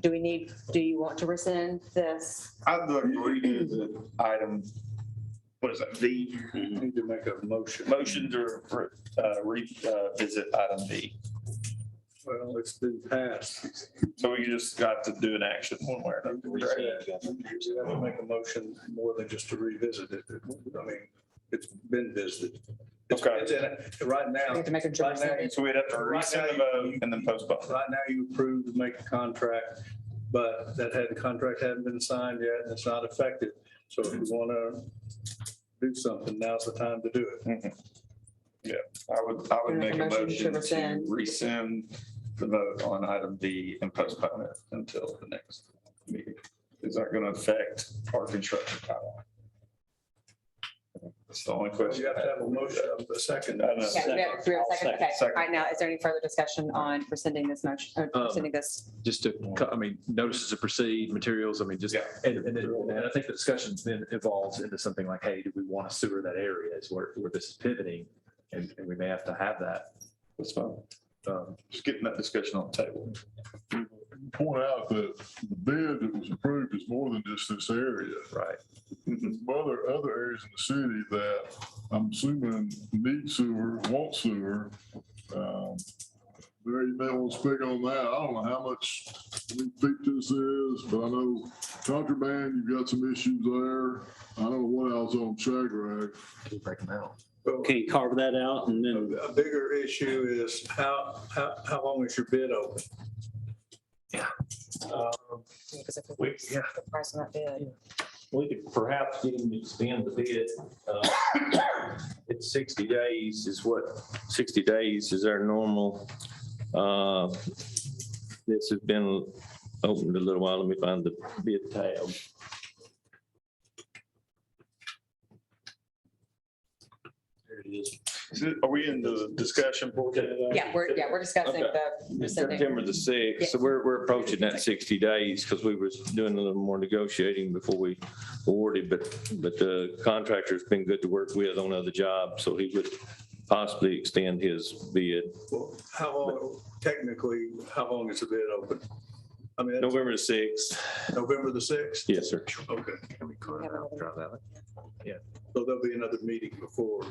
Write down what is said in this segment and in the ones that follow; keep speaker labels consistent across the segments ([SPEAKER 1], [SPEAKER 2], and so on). [SPEAKER 1] do we need, do you want to rescind this?
[SPEAKER 2] I'm not reading the item, what is that, V?
[SPEAKER 3] Need to make a motion.
[SPEAKER 2] Motion to uh, revisit item V.
[SPEAKER 3] Well, it's been passed.
[SPEAKER 2] So we just got to do an action one way or
[SPEAKER 3] We
[SPEAKER 2] another.
[SPEAKER 3] have to make a motion more than just to revisit it. I mean, it's been visited. It's-
[SPEAKER 2] Okay.
[SPEAKER 3] it's in it. Right
[SPEAKER 1] We
[SPEAKER 3] now,
[SPEAKER 1] have to make a
[SPEAKER 3] right now,
[SPEAKER 1] choice.
[SPEAKER 2] So we'd have to rescind the vote and then postpone.
[SPEAKER 3] right now you approved to make a contract, but that had, the contract hadn't been signed yet and it's not effective. So if you want to do something, now's the time to do it.
[SPEAKER 2] Mm-hmm. I would, I would make
[SPEAKER 1] to
[SPEAKER 2] a motion to
[SPEAKER 1] rescind.
[SPEAKER 2] rescind the vote on item V and postpone it until the next meeting. Is that going to affect our construction timeline? That's the only question.
[SPEAKER 3] You have to have a motion, a second.
[SPEAKER 2] I know.
[SPEAKER 1] Yeah, we have we have a second, okay. All
[SPEAKER 2] Second.
[SPEAKER 1] right, now, is there any further discussion on rescinding this motion, or
[SPEAKER 4] Um,
[SPEAKER 1] rescinding this?
[SPEAKER 4] just to, co- I mean, notices to proceed, materials, I mean, just,
[SPEAKER 2] Yeah.
[SPEAKER 4] and, and then, and I think the discussions then evolves into something like, hey, do we want to sewer that area is where, where this is pivoting? And, and we may have to have that.
[SPEAKER 2] That's fine.
[SPEAKER 4] Um,
[SPEAKER 2] Just getting that discussion on the table.
[SPEAKER 5] point out that the bid that was approved is more than just this area.
[SPEAKER 4] right.
[SPEAKER 5] There's other, other areas in the city that I'm assuming need sewer, want sewer. Um, Mary, you may want to speak on that. I don't know how much we think this is, but I know contraband, you've got some issues there. I don't know what else on Shagrag.
[SPEAKER 4] Keep breaking out.
[SPEAKER 6] Can you carve that out and then,
[SPEAKER 3] A bigger issue is how, how, how long is your bid open?
[SPEAKER 4] Yeah.
[SPEAKER 3] Um,
[SPEAKER 1] Because if
[SPEAKER 7] We-
[SPEAKER 1] it's the price of that bid.
[SPEAKER 7] We could perhaps get him to expand the bid. uh, It's sixty days is what, sixty days is our normal. uh, This has been opened a little while. Let me find the bid tab. There it is.
[SPEAKER 2] Is it- Are we in the discussion portion?
[SPEAKER 1] Yeah, we're, yeah, we're discussing
[SPEAKER 7] Okay.
[SPEAKER 1] the
[SPEAKER 7] It's
[SPEAKER 1] rescinding.
[SPEAKER 7] September the sixth, so we're, we're approaching that sixty days because we was doing a little more negotiating before we awarded, but, but the contractor's been good to work with on other jobs, so he would possibly extend his bid.
[SPEAKER 3] well, How long, technically, how long is the bid open? I mean, that's
[SPEAKER 7] November the sixth,
[SPEAKER 3] November the sixth?
[SPEAKER 7] yes, sir.
[SPEAKER 3] Okay,
[SPEAKER 1] There
[SPEAKER 3] so there'll be another meeting before,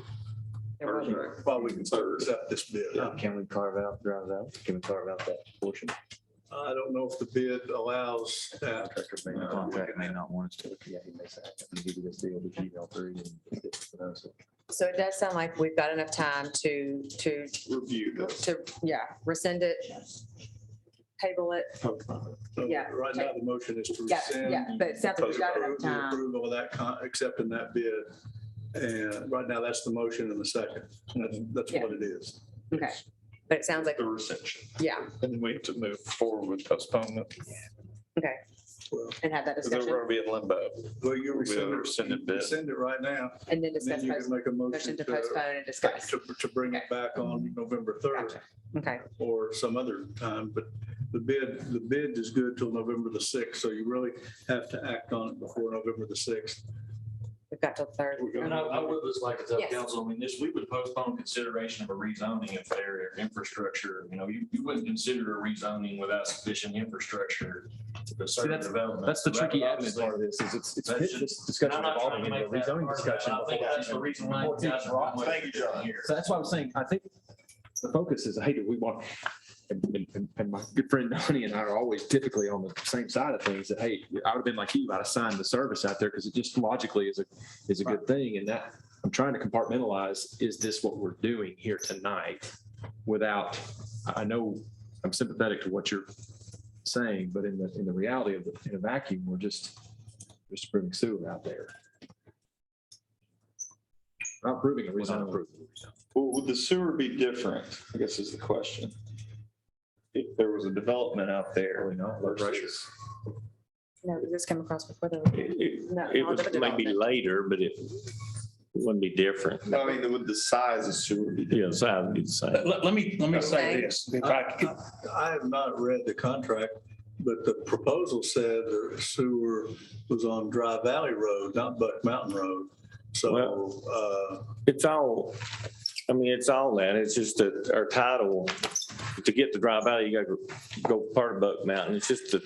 [SPEAKER 1] were-
[SPEAKER 3] while we can sort of accept this bid. I
[SPEAKER 4] Can we carve out, drive out? Can we carve out that portion?
[SPEAKER 3] I don't know if the bid allows that.
[SPEAKER 4] Contractor may,
[SPEAKER 3] Uh,
[SPEAKER 4] contract may not want us to, yeah, he may say, I'm gonna give you this deal to Gmail three and. you know, so-
[SPEAKER 1] So it does sound like we've got enough time to, to,
[SPEAKER 2] Review this.
[SPEAKER 1] to, yeah, rescind it, table it.
[SPEAKER 3] So
[SPEAKER 1] Yeah.
[SPEAKER 3] Right now, the motion is to
[SPEAKER 1] Yeah,
[SPEAKER 3] rescind.
[SPEAKER 1] yeah, but it sounds like we've got enough
[SPEAKER 3] Approve the
[SPEAKER 1] time.
[SPEAKER 3] approval of that, con- accepting that bid. And right now, that's the motion and the second. That's, that's what it is.
[SPEAKER 1] Okay, but it sounds like,
[SPEAKER 2] The recension.
[SPEAKER 1] yeah,
[SPEAKER 2] And then we have to move forward with postponement.
[SPEAKER 1] okay,
[SPEAKER 3] Well,
[SPEAKER 1] and have that
[SPEAKER 2] Because they're
[SPEAKER 1] discussion
[SPEAKER 2] going to be in limbo.
[SPEAKER 3] Well, you
[SPEAKER 2] We
[SPEAKER 3] rescind
[SPEAKER 2] have a
[SPEAKER 3] it.
[SPEAKER 2] rescinded bid.
[SPEAKER 3] Rescind it right now.
[SPEAKER 1] and then
[SPEAKER 3] And
[SPEAKER 1] discuss,
[SPEAKER 3] Then you can
[SPEAKER 1] post-
[SPEAKER 3] make a motion
[SPEAKER 1] motion to
[SPEAKER 3] to,
[SPEAKER 1] postpone and discuss.
[SPEAKER 3] to, to bring it back on November third
[SPEAKER 1] Gotcha. Okay,
[SPEAKER 3] or some other time, but the bid, the bid is good till November the sixth, so you really have to act on it before November the sixth.
[SPEAKER 1] we've got till third.
[SPEAKER 8] And I, I would just like to tell
[SPEAKER 1] Yes.
[SPEAKER 8] council, I mean, this, we would postpone consideration of a rezoning if their infrastructure, you know, you, you wouldn't consider a rezoning without sufficient infrastructure to certain
[SPEAKER 4] that's-
[SPEAKER 8] development.
[SPEAKER 4] That's the
[SPEAKER 8] So that
[SPEAKER 4] tricky
[SPEAKER 8] would
[SPEAKER 4] admin
[SPEAKER 8] obviously-
[SPEAKER 4] part of this, is it's, it's
[SPEAKER 8] That
[SPEAKER 4] this
[SPEAKER 8] should- And
[SPEAKER 4] discussion
[SPEAKER 8] I'm not trying
[SPEAKER 4] evolving
[SPEAKER 8] to
[SPEAKER 4] into a
[SPEAKER 8] make that
[SPEAKER 4] rezoning
[SPEAKER 8] part of it.
[SPEAKER 4] discussion.
[SPEAKER 8] I think
[SPEAKER 4] before
[SPEAKER 8] that's the reason why you guys are on.
[SPEAKER 2] Thank you, John.
[SPEAKER 8] Here.
[SPEAKER 4] So that's why I'm saying, I think the focus is, hey, do we want, and, and- and, and my good friend Donnie and I are always typically on the same side of things that, hey, I would have been like you, I'd have signed the service out there because it just logically is a, is a good thing. And that, I'm trying to compartmentalize, is this what we're doing here tonight? Without, I, I know, I'm sympathetic to what you're saying, but in the, in the reality of, the- in a vacuum, we're just, just proving sewer out there. Not proving it, we're not approving.
[SPEAKER 2] Well, would the sewer be different? I guess is the question. If there was a development out there
[SPEAKER 4] Probably not, low pressure.
[SPEAKER 2] versus.
[SPEAKER 1] No, this came across before the.
[SPEAKER 7] It
[SPEAKER 1] No,
[SPEAKER 7] it
[SPEAKER 1] all
[SPEAKER 7] was
[SPEAKER 1] different
[SPEAKER 7] maybe
[SPEAKER 1] development.
[SPEAKER 7] later, but it wouldn't be different.
[SPEAKER 2] I mean, would the size of sewer be different?
[SPEAKER 7] Yes, I would say.
[SPEAKER 8] Let, let me, let me
[SPEAKER 1] say
[SPEAKER 8] this.
[SPEAKER 3] I I have not read the contract, but the proposal said the sewer was on Dry Valley Road, not Buck Mountain Road. So, uh,
[SPEAKER 7] It's all, I mean, it's all that. It's just that our title, to get to Dry Valley, you gotta go- go part of Buck Mountain. It's just the